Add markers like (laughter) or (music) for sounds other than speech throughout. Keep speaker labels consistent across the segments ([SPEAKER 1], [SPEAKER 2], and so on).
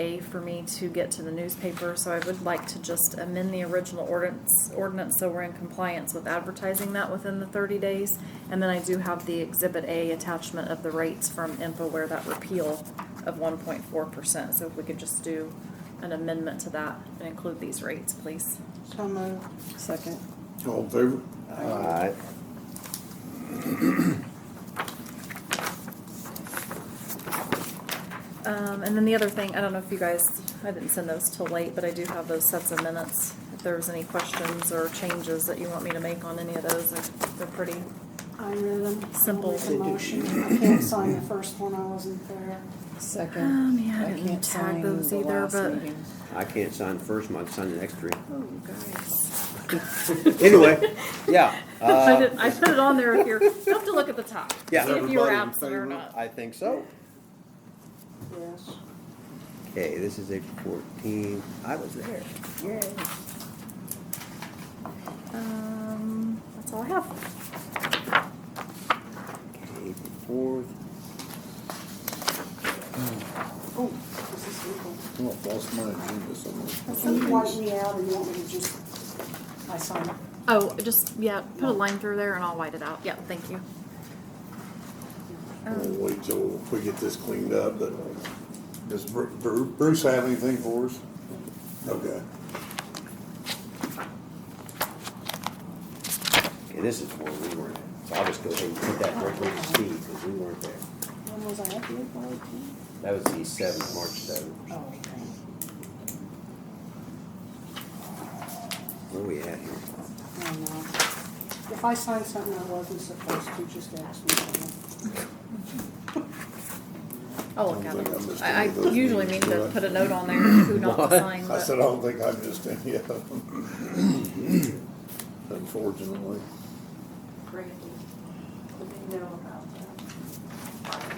[SPEAKER 1] A for me to get to the newspaper, so I would like to just amend the original ordinance, ordinance, so we're in compliance with advertising that within the thirty days. And then I do have the Exhibit A attachment of the rates from InfoWare, that repeal of one point four percent. So if we could just do an amendment to that and include these rates, please.
[SPEAKER 2] So moved. Second.
[SPEAKER 3] All in favor?
[SPEAKER 4] Alright.
[SPEAKER 1] Um, and then the other thing, I don't know if you guys, I didn't send those till late, but I do have those sets of minutes. If there was any questions or changes that you want me to make on any of those, they're, they're pretty,
[SPEAKER 2] I read them.
[SPEAKER 1] Simple.
[SPEAKER 2] I made the motion. I can't sign the first one, I wasn't there.
[SPEAKER 5] Second.
[SPEAKER 1] Oh, man, I didn't
[SPEAKER 5] can't
[SPEAKER 1] tag
[SPEAKER 5] sign
[SPEAKER 1] those
[SPEAKER 5] the
[SPEAKER 1] either,
[SPEAKER 5] last
[SPEAKER 1] but-
[SPEAKER 5] meeting.
[SPEAKER 4] I can't sign the first one, I can sign the next three.
[SPEAKER 1] oh,
[SPEAKER 4] (laughs)
[SPEAKER 1] guys.
[SPEAKER 4] Anyway,
[SPEAKER 1] (laughs)
[SPEAKER 4] yeah,
[SPEAKER 1] I
[SPEAKER 4] uh,
[SPEAKER 1] did, I put it on there if you're, you have to look at the top.
[SPEAKER 4] (laughs) Yeah.
[SPEAKER 1] See if you were
[SPEAKER 3] Everybody in
[SPEAKER 1] absent or
[SPEAKER 3] favor?
[SPEAKER 1] not.
[SPEAKER 4] I think so.
[SPEAKER 2] Yes.
[SPEAKER 4] Okay, this is April fourteen, I was there.
[SPEAKER 1] Um, that's all I have.
[SPEAKER 4] Okay, April fourth,
[SPEAKER 2] Oh, this is legal.
[SPEAKER 3] Oh, I lost my agenda somewhere.
[SPEAKER 2] Can you wipe me out or you want me to just, I sign it?
[SPEAKER 1] Oh, just, yeah, put a line through there and I'll white it out. Um, Yeah, thank you.
[SPEAKER 4] Oh,
[SPEAKER 1] uh,
[SPEAKER 3] We'll wait till we get this cleaned up, but does Bru- Bru- Bruce have anything for us? Okay.
[SPEAKER 4] okay, this is where we weren't at, so I'll just go ahead and put that right where you see, because we weren't there.
[SPEAKER 2] When was I at the April 18?
[SPEAKER 4] That was the seventh, March seventh.
[SPEAKER 2] Oh, okay.
[SPEAKER 4] Where we at here?
[SPEAKER 2] I know. If I sign something I wasn't supposed to, just ask me.
[SPEAKER 1] I'll look at
[SPEAKER 3] I don't think I
[SPEAKER 1] it.
[SPEAKER 3] missed
[SPEAKER 1] I,
[SPEAKER 3] any of
[SPEAKER 1] I
[SPEAKER 3] those
[SPEAKER 1] usually mean
[SPEAKER 3] meetings,
[SPEAKER 1] to
[SPEAKER 3] do I?
[SPEAKER 1] put a note on there, who not to
[SPEAKER 4] What?
[SPEAKER 1] sign,
[SPEAKER 3] I
[SPEAKER 1] but.
[SPEAKER 3] said, I don't think I missed any of them. (clears throat) Unfortunately.
[SPEAKER 2] Brandy, would they know about that?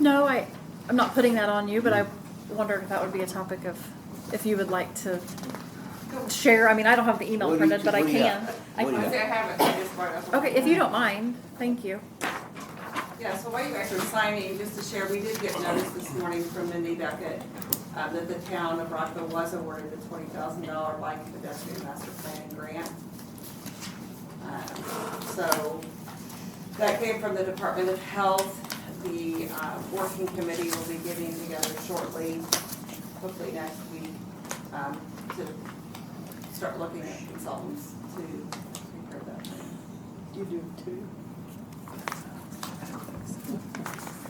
[SPEAKER 1] No, I, I'm not putting that on you, but I
[SPEAKER 4] Hmm.
[SPEAKER 1] wondered if that would be a topic of, if you would like to share, I mean, I don't have the
[SPEAKER 4] What do
[SPEAKER 1] email
[SPEAKER 4] you-
[SPEAKER 1] printed, but I
[SPEAKER 4] what do you
[SPEAKER 1] can.
[SPEAKER 4] got?
[SPEAKER 1] I
[SPEAKER 4] What do you
[SPEAKER 1] can-
[SPEAKER 6] I haven't, I just brought it up.
[SPEAKER 1] Okay, if you don't mind, thank you.
[SPEAKER 6] Yeah, so while you guys are signing, just to share, we did get notice this morning from Mindy Beckett uh, that the town of Rockville was awarded the twenty thousand dollar bike pedestrian master plan grant. Um, So that came from the Department of Health. The uh, working committee will be getting together shortly, hopefully next week, um, to start looking at consultants to prepare that.
[SPEAKER 2] You do too?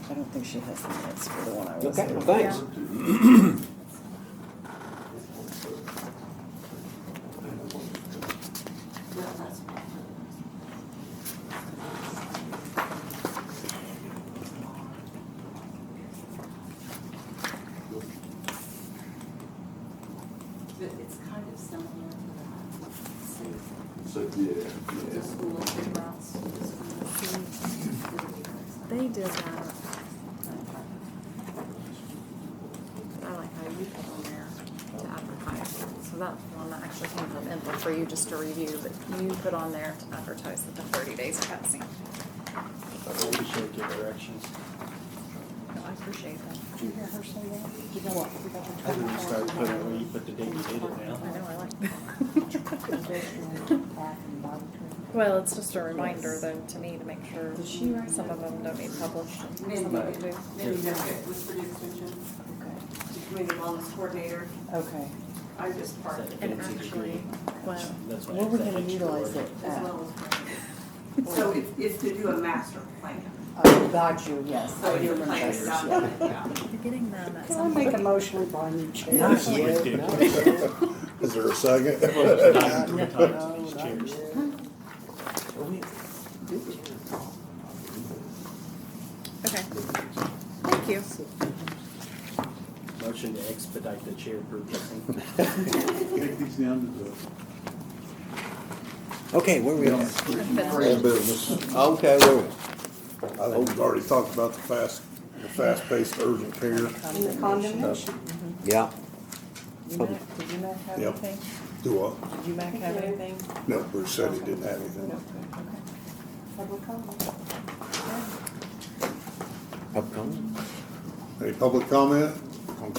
[SPEAKER 5] I don't think she has the minutes for the one I was.
[SPEAKER 4] Okay,
[SPEAKER 5] at.
[SPEAKER 4] well, thanks.
[SPEAKER 6] That last one. But it's kind of similar to that, same,
[SPEAKER 3] So, yeah,
[SPEAKER 6] the school of the routes, the school of the-
[SPEAKER 1] They did that. I like how you put on there to advertise, so that's one that actually came from info for you just to review, but you put on there to advertise that the thirty days are passing. No, I appreciate that.
[SPEAKER 2] Did you hear her say that? You got what? You got her
[SPEAKER 7] I didn't start putting it
[SPEAKER 2] $24.
[SPEAKER 7] where you put the date you did it now.
[SPEAKER 1] I know, I like that. (laughs)
[SPEAKER 2] Well,
[SPEAKER 1] Well, it's just a reminder though, to me, to make sure
[SPEAKER 5] Did she write
[SPEAKER 1] some of them don't need published. and some of them
[SPEAKER 6] Mindy,
[SPEAKER 1] do.
[SPEAKER 6] Mindy Beckett was pretty extension, the community wellness coordinator,
[SPEAKER 5] Okay,
[SPEAKER 6] I just part of it,
[SPEAKER 1] And
[SPEAKER 7] Fancy
[SPEAKER 1] actually,
[SPEAKER 7] degree.
[SPEAKER 1] well,
[SPEAKER 7] That's why I
[SPEAKER 5] where we
[SPEAKER 7] said
[SPEAKER 5] gonna
[SPEAKER 7] extra
[SPEAKER 5] utilize
[SPEAKER 7] word.
[SPEAKER 5] it
[SPEAKER 6] as
[SPEAKER 5] at?
[SPEAKER 6] well as. part of it. So it's, it's to do a master plan,
[SPEAKER 5] Oh, got you, yes.
[SPEAKER 6] so
[SPEAKER 5] I do
[SPEAKER 6] your
[SPEAKER 5] remember
[SPEAKER 6] plan is
[SPEAKER 5] yours,
[SPEAKER 6] not,
[SPEAKER 5] yeah.
[SPEAKER 6] done, yeah.
[SPEAKER 1] you're getting them at
[SPEAKER 2] Can I
[SPEAKER 1] some
[SPEAKER 2] make
[SPEAKER 1] point.
[SPEAKER 2] a motion to buy new chairs?
[SPEAKER 5] Not
[SPEAKER 7] This is
[SPEAKER 5] yet.
[SPEAKER 7] ridiculous.
[SPEAKER 3] (laughs) Is there a second?
[SPEAKER 7] Nine three times in these chairs.
[SPEAKER 1] Okay. Thank you.
[SPEAKER 7] Motion to expedite the chair purchasing.
[SPEAKER 3] Take these down to the.
[SPEAKER 4] Okay, where we at?
[SPEAKER 3] Old business.
[SPEAKER 4] Okay, where we?
[SPEAKER 3] I think we've already talked about the fast, the fast-paced urgent care.
[SPEAKER 2] In the condemnation.
[SPEAKER 4] Yeah,
[SPEAKER 5] You Mac, did you Mac have
[SPEAKER 3] Yep.
[SPEAKER 5] anything?
[SPEAKER 3] Do I?
[SPEAKER 5] Did you Mac have anything?
[SPEAKER 3] No, Bruce said he didn't have anything.
[SPEAKER 5] No, okay.
[SPEAKER 2] Public comment.
[SPEAKER 4] upcoming.
[SPEAKER 3] Any public comment?